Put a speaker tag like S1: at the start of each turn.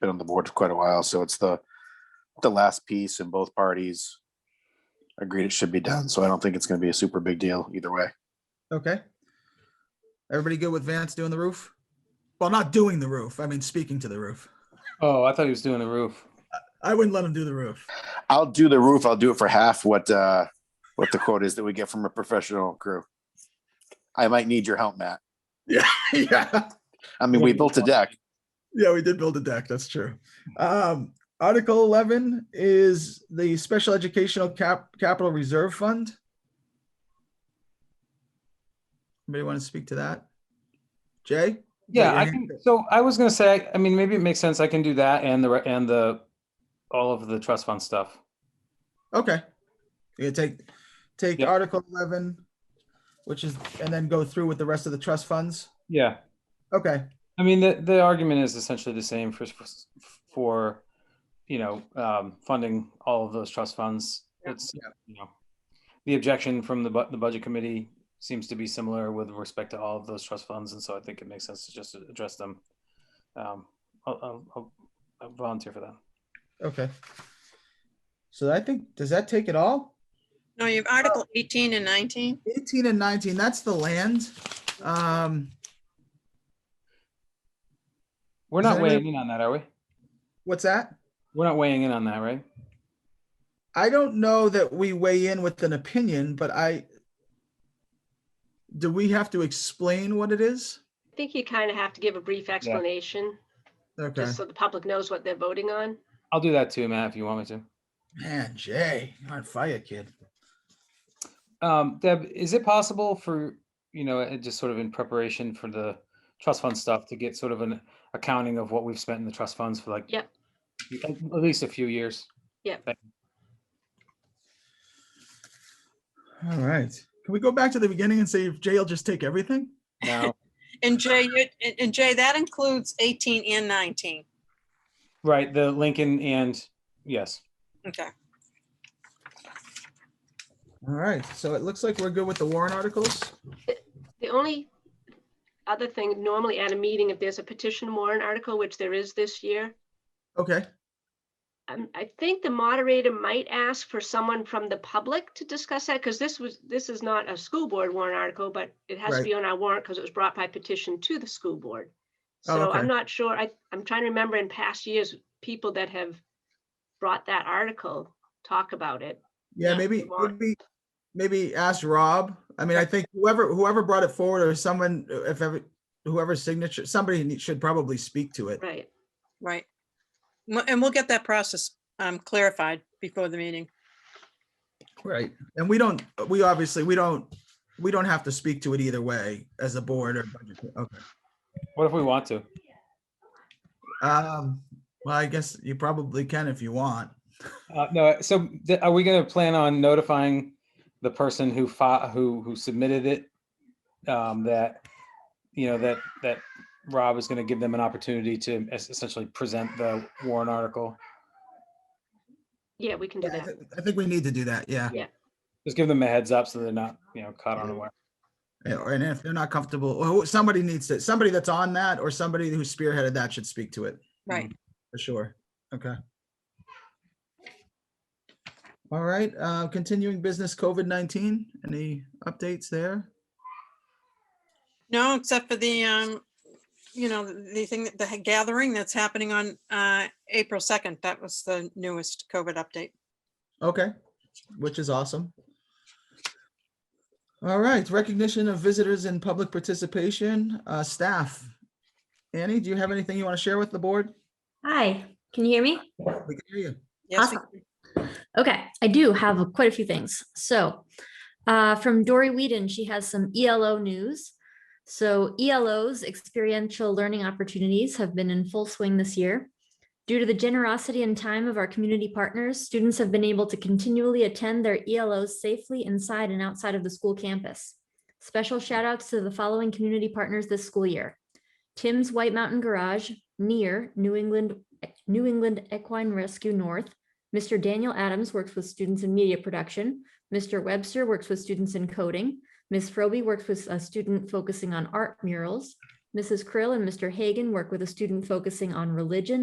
S1: been on the board for quite a while, so it's the the last piece, and both parties agreed it should be done. So I don't think it's going to be a super big deal either way.
S2: Okay. Everybody good with Vance doing the roof? Well, not doing the roof. I mean, speaking to the roof.
S3: Oh, I thought he was doing the roof.
S2: I wouldn't let him do the roof.
S1: I'll do the roof. I'll do it for half what uh what the quote is that we get from a professional crew. I might need your help, Matt.
S2: Yeah, yeah,
S1: I mean, we built a deck.
S2: yeah. We did build a deck. That's true. Um, Article eleven is the Special Educational Cap Capital Reserve Fund. Anybody want to speak to that? Jay?
S3: Yeah,
S2: you're
S3: I
S2: gonna-
S3: can, so I was gonna say, I mean, maybe it makes sense. I can do that and the, re- and the, all of the trust fund stuff.
S2: Okay. You gonna take take
S3: Yep.
S2: Article eleven, which is, and then go through with the rest of the trust funds.
S3: Yeah.
S2: Okay.
S3: I mean, the, the argument is essentially the same for, for, you know, um, funding all of those trust funds. It's, you know, the objection from the, bu- the budget committee seems to be similar with respect to all of those trust funds, and so I think it makes sense to just address them. Um, I'll, I'll- I'll, I'll volunteer for that.
S2: Okay. So I think, does that take it all?
S4: No, you have Article 18 and 19.
S2: Eighteen and nineteen, that's the land. Um,
S3: We're
S2: Is
S3: not
S2: anybody-
S3: weighing in on that, are we?
S2: what's that?
S3: We're not weighing in on that, right?
S2: I don't know that we weigh in with an opinion, but I. Do we have to explain what it is?
S5: I think you kind of have to give a brief explanation,
S2: Okay,
S5: just so the public knows what they're voting on.
S3: I'll do that too, Matt, if you want me to.
S2: man, Jay, you're on fire, kid.
S3: Um, Deb, is it possible for, you know, uh, just sort of in preparation for the trust fund stuff to get sort of an accounting of what we've spent in the trust funds for like?
S5: Yep.
S3: y- At at least a few years.
S2: All right, can we go back to the beginning and say if Jay will just take everything?
S3: Now,
S4: And Jay, you- and- and Jay, that includes 18 and 19.
S3: right, the Lincoln and, yes,
S4: Okay.
S2: All right, so it looks like we're good with the Warren articles.
S5: The only other thing, normally at a meeting, if there's a petition warrant article, which there is this year,
S2: Okay,
S5: um, I think the moderator might ask for someone from the public to discuss that, because this was, this is not a school board warrant article, but it has
S2: Right.
S5: to be on our warrant because it was brought by petition to the school board.
S2: Oh,
S5: So
S2: okay.
S5: I'm not sure, I, I'm trying to remember in past years, people that have brought that article talk about it.
S2: yeah,
S5: Yeah,
S2: maybe,
S5: the warrant.
S2: maybe, maybe ask Rob. I mean, I think whoever, whoever brought it forward or someone, uh, if ever, whoever's signature, somebody need- should probably speak to it.
S5: Right.
S4: Right. Mo- And we'll get that process um, clarified before the meeting.
S2: Right. And we don't, we obviously, we don't, we don't have to speak to it either way as a board or budget. co- Okay.
S3: what if we want to?
S2: Um, well, I guess you probably can if you want.
S3: Uh, no, so th- are we gonna plan on notifying the person who fi- who, who submitted it? Um, that, you know, that, that Rob is gonna give them an opportunity to es- essentially present the warrant article?
S5: Yeah, we can do
S2: Yeah, I
S5: that.
S2: thi- I think we need to do that. Yeah.
S3: Just give them a heads up so they're not, you know, caught unaware.
S2: Yeah, And if they're not comfortable, or who- somebody needs to, somebody that's on that or somebody who spearheaded that should speak to it.
S4: Right.
S2: For sure. Okay. All right, uh, continuing business COVID-19, any updates there?
S4: No, except for the, um, you know, the thing, the gathering that's happening on uh, April 2nd. That was the newest COVID update.
S2: Okay, which is awesome. All right, recognition of visitors and public participation, uh, staff. Annie, do you have anything you want to share with the board?
S6: Hi, can you hear me?
S2: We can hear you.
S4: Yes, we-
S6: Okay, I do have quite a few things. So uh, from Dory Whedon, she has some ELO news. So ELO's experiential learning opportunities have been in full swing this year. Due to the generosity and time of our community partners, students have been able to continually attend their ELOs safely inside and outside of the school campus. Special shout outs to the following community partners this school year. Tim's White Mountain Garage, near New England, New England Equine Rescue North, Mr. Daniel Adams works with students in media production. Mr. Webster works with students in coding. Ms. Frobe works with a student focusing on art murals. Mrs. Krill and Mr. Hagan work with a student focusing on religion